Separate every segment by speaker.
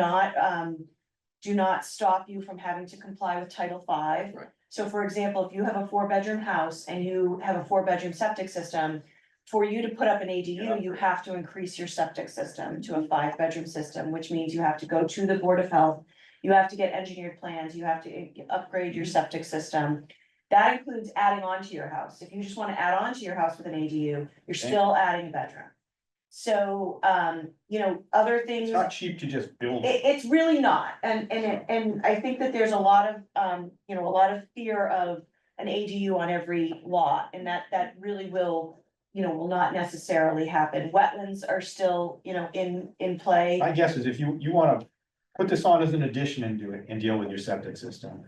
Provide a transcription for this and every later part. Speaker 1: not, um, do not stop you from having to comply with Title Five.
Speaker 2: Right.
Speaker 1: So for example, if you have a four-bedroom house and you have a four-bedroom septic system, for you to put up an ADU, you have to increase your septic system to a five-bedroom system, which means you have to go to the Board of Health. You have to get engineered plans, you have to i- upgrade your septic system. That includes adding on to your house. If you just wanna add on to your house with an ADU, you're
Speaker 2: Okay.
Speaker 1: still adding a bedroom. So, um, you know, other things.
Speaker 3: It's not cheap to just build.
Speaker 1: It, it's really not, and, and, it- and I think that there's a lot of, um, you know, a lot of fear of an ADU on every lot, and that, that really will, you know, will not necessarily happen. Wetlands are still, you know, in, in play.
Speaker 3: My guess is if you, you wanna put this on as an addition and do it and deal with your septic system.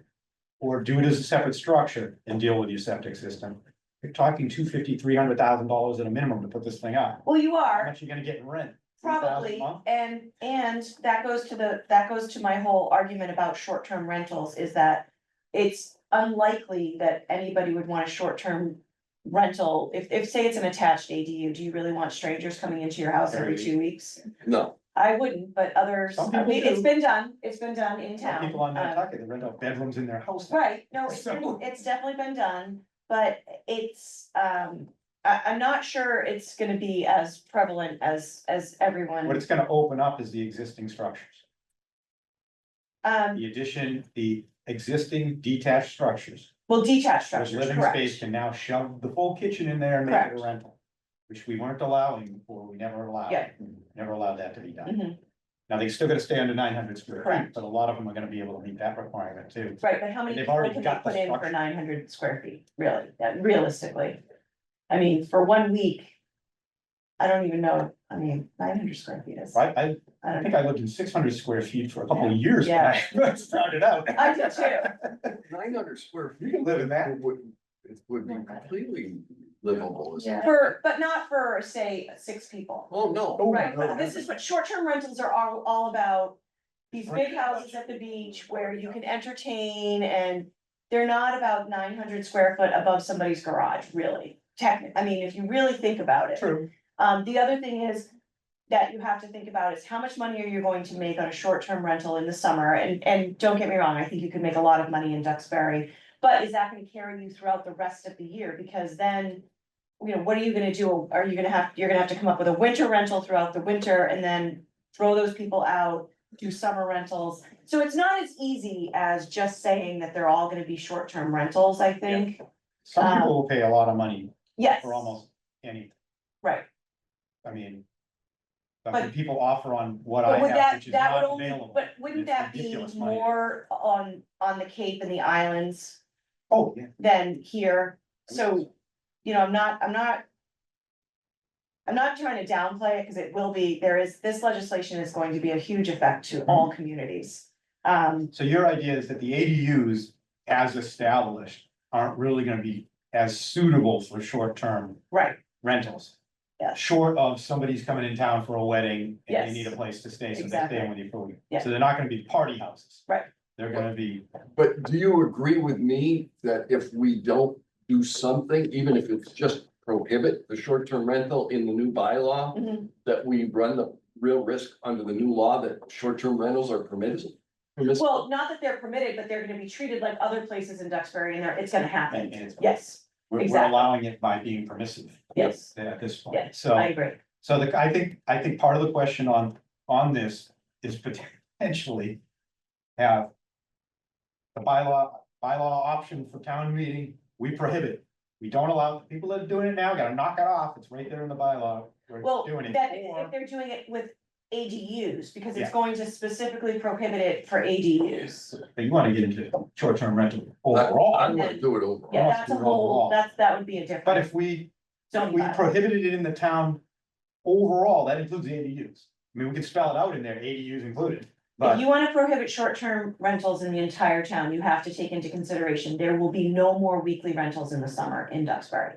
Speaker 3: Or do it as a separate structure and deal with your septic system. You're talking two fifty, three hundred thousand dollars at a minimum to put this thing up.
Speaker 1: Well, you
Speaker 3: How
Speaker 1: are,
Speaker 3: much you gonna get in rent? $3,000 a
Speaker 1: probably,
Speaker 3: month?
Speaker 1: and, and that goes to the, that goes to my whole argument about short-term rentals, is that it's unlikely that anybody would want a short-term rental, if, if, say it's an attached ADU, do you really want strangers coming into your house every
Speaker 3: Every
Speaker 1: two weeks?
Speaker 2: No,
Speaker 1: I wouldn't, but others,
Speaker 3: Some
Speaker 1: I
Speaker 3: people
Speaker 1: mean, it's
Speaker 3: do.
Speaker 1: been done, it's been done in
Speaker 3: There are
Speaker 1: town.
Speaker 3: People on
Speaker 1: um,
Speaker 3: Nantucket that rent out bedrooms in their house. now.
Speaker 1: Right, no, it's, been-
Speaker 3: So-
Speaker 1: it's definitely been done, but it's, um, I, I'm not sure it's gonna be as prevalent as, as
Speaker 3: What
Speaker 1: everyone.
Speaker 3: it's gonna open up is the existing structures,
Speaker 1: Um,
Speaker 3: the addition, the existing detached structures.
Speaker 1: well, detached
Speaker 3: Those
Speaker 1: structures,
Speaker 3: living space
Speaker 1: correct,
Speaker 3: can now shove the full kitchen in there and make it
Speaker 1: Correct.
Speaker 3: a rental. Which we weren't allowing before, we never allowed.
Speaker 1: Yeah.
Speaker 3: Never allowed that to be done.
Speaker 1: Mhm.
Speaker 3: Now, they still gotta stay under nine hundred square feet,
Speaker 1: Correct.
Speaker 3: but a lot of them are gonna be able to meet that requirement too.
Speaker 1: right, but how many
Speaker 3: They've
Speaker 1: people
Speaker 3: already
Speaker 1: can you
Speaker 3: got the
Speaker 1: put in for
Speaker 3: structure.
Speaker 1: nine hundred square feet, really, that realistically? I mean, for one week, I don't even know, I mean, nine hundred square feet is,
Speaker 3: I, I,
Speaker 1: I
Speaker 3: I
Speaker 1: don't know,
Speaker 3: think I lived in six hundred square feet for a couple of years when I first started out.
Speaker 1: I did too.
Speaker 2: nine hundred square
Speaker 3: You
Speaker 2: feet
Speaker 3: can live in that.
Speaker 2: would, it would be completely livable, isn't it?
Speaker 1: For, but not for, say, six people.
Speaker 2: Oh, no.
Speaker 3: Oh,
Speaker 1: Right,
Speaker 3: no.
Speaker 1: but this is what, short-term rentals are all, all about. These big houses at the beach where you can entertain and they're not about nine hundred square foot above somebody's garage, really. Technically, I mean, if you really think about it.
Speaker 3: True.
Speaker 1: Um, the other thing is that you have to think about is how much money are you going to make on a short-term rental in the summer? And, and don't get me wrong, I think you could make a lot of money in Duxbury, but is that gonna carry you throughout the rest of the year? Because then, you know, what are you gonna do? Are you gonna have, you're gonna have to come up with a winter rental throughout the winter and then throw those people out, do summer rentals. So it's not as easy as just saying that they're all gonna be short-term rentals, I think.
Speaker 3: Some people will pay a lot of money
Speaker 1: Um, Yes,
Speaker 3: for almost anything.
Speaker 1: right.
Speaker 3: I mean. I mean,
Speaker 1: But-
Speaker 3: people offer on what I
Speaker 1: But would
Speaker 3: have,
Speaker 1: that,
Speaker 3: which is
Speaker 1: that would
Speaker 3: not
Speaker 1: only,
Speaker 3: available.
Speaker 1: but wouldn't
Speaker 3: It's
Speaker 1: that be
Speaker 3: ridiculous money.
Speaker 1: more on, on the Cape and the islands
Speaker 3: Oh, yeah.
Speaker 1: than here? So, you know, I'm not, I'm not. I'm not trying to downplay it, because it will be, there is, this legislation is going to be a huge effect to
Speaker 3: Mm-hmm.
Speaker 1: all communities. Um,
Speaker 3: So your idea is that the ADUs as established aren't really gonna be as suitable for short-term
Speaker 1: right,
Speaker 3: rentals.
Speaker 1: Yes.
Speaker 3: Short of somebody's coming in town for a wedding and
Speaker 1: Yes.
Speaker 3: they need a place to stay, so they're
Speaker 1: Exactly.
Speaker 3: staying with you for a week.
Speaker 1: Yeah.
Speaker 3: So they're not gonna be party houses.
Speaker 1: Right.
Speaker 3: They're gonna be,
Speaker 2: But do you agree with me that if we don't do something, even if it's just prohibit the short-term rental in the new
Speaker 3: Mm-hmm.
Speaker 2: bylaw,
Speaker 1: Mhm.
Speaker 2: that we run the real risk under the new law that short-term rentals are permitted? Permissible?
Speaker 1: well, not that they're permitted, but they're gonna be treated like other places in Duxbury, and they're, it's gonna
Speaker 3: and,
Speaker 1: happen.
Speaker 3: and it's,
Speaker 1: Yes,
Speaker 3: we're, we're
Speaker 1: exactly.
Speaker 3: allowing it by being permissive
Speaker 1: yes,
Speaker 3: at this
Speaker 1: Yeah,
Speaker 3: point, so.
Speaker 1: I agree,
Speaker 3: So the, I think, I think part of the question on, on this is potentially have the bylaw, bylaw option for town meeting, we prohibit. We don't allow, people that are doing it now, gotta knock it off, it's right there in the bylaw, we're
Speaker 1: well,
Speaker 3: doing it.
Speaker 1: that,
Speaker 3: Or-
Speaker 1: if they're doing it with ADUs, because it's
Speaker 3: Yeah.
Speaker 1: going to specifically prohibit it for ADUs.
Speaker 3: But you wanna get into short-term rental
Speaker 2: I
Speaker 3: overall,
Speaker 2: wanna do it overall.
Speaker 1: Yeah,
Speaker 3: Well,
Speaker 1: that's a
Speaker 3: it's
Speaker 1: whole,
Speaker 3: overall.
Speaker 1: that's, that would be a
Speaker 3: but
Speaker 1: different
Speaker 3: if we, if
Speaker 1: zoning
Speaker 3: we
Speaker 1: bylaw.
Speaker 3: prohibited it in the town overall, that includes ADUs. I mean, we could spell it out in there, ADUs included,
Speaker 1: If
Speaker 3: but
Speaker 1: you wanna prohibit short-term rentals in the entire town, you have to take into consideration, there will be no more weekly rentals in the summer in Duxbury.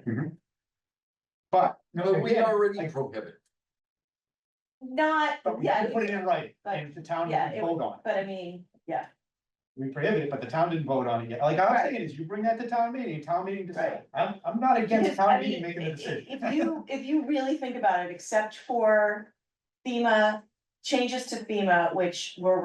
Speaker 3: but.
Speaker 2: But we
Speaker 3: again,
Speaker 2: already prohibit.
Speaker 1: Not,
Speaker 3: But we
Speaker 1: yeah,
Speaker 3: can put it in writing,
Speaker 1: but-
Speaker 3: and the town
Speaker 1: yeah,
Speaker 3: didn't
Speaker 1: it
Speaker 3: vote on it,
Speaker 1: but I mean, yeah,
Speaker 3: we prohibit it, but the town didn't vote on it yet, like I was saying is, you bring that to town meeting, town meeting decide.
Speaker 1: Right.
Speaker 3: I'm, I'm not against
Speaker 1: I
Speaker 3: town
Speaker 1: mean,
Speaker 3: meeting making
Speaker 1: i-
Speaker 3: the
Speaker 1: i-
Speaker 3: decision.
Speaker 1: If you, if you really think about it, except for FEMA, changes to FEMA, which were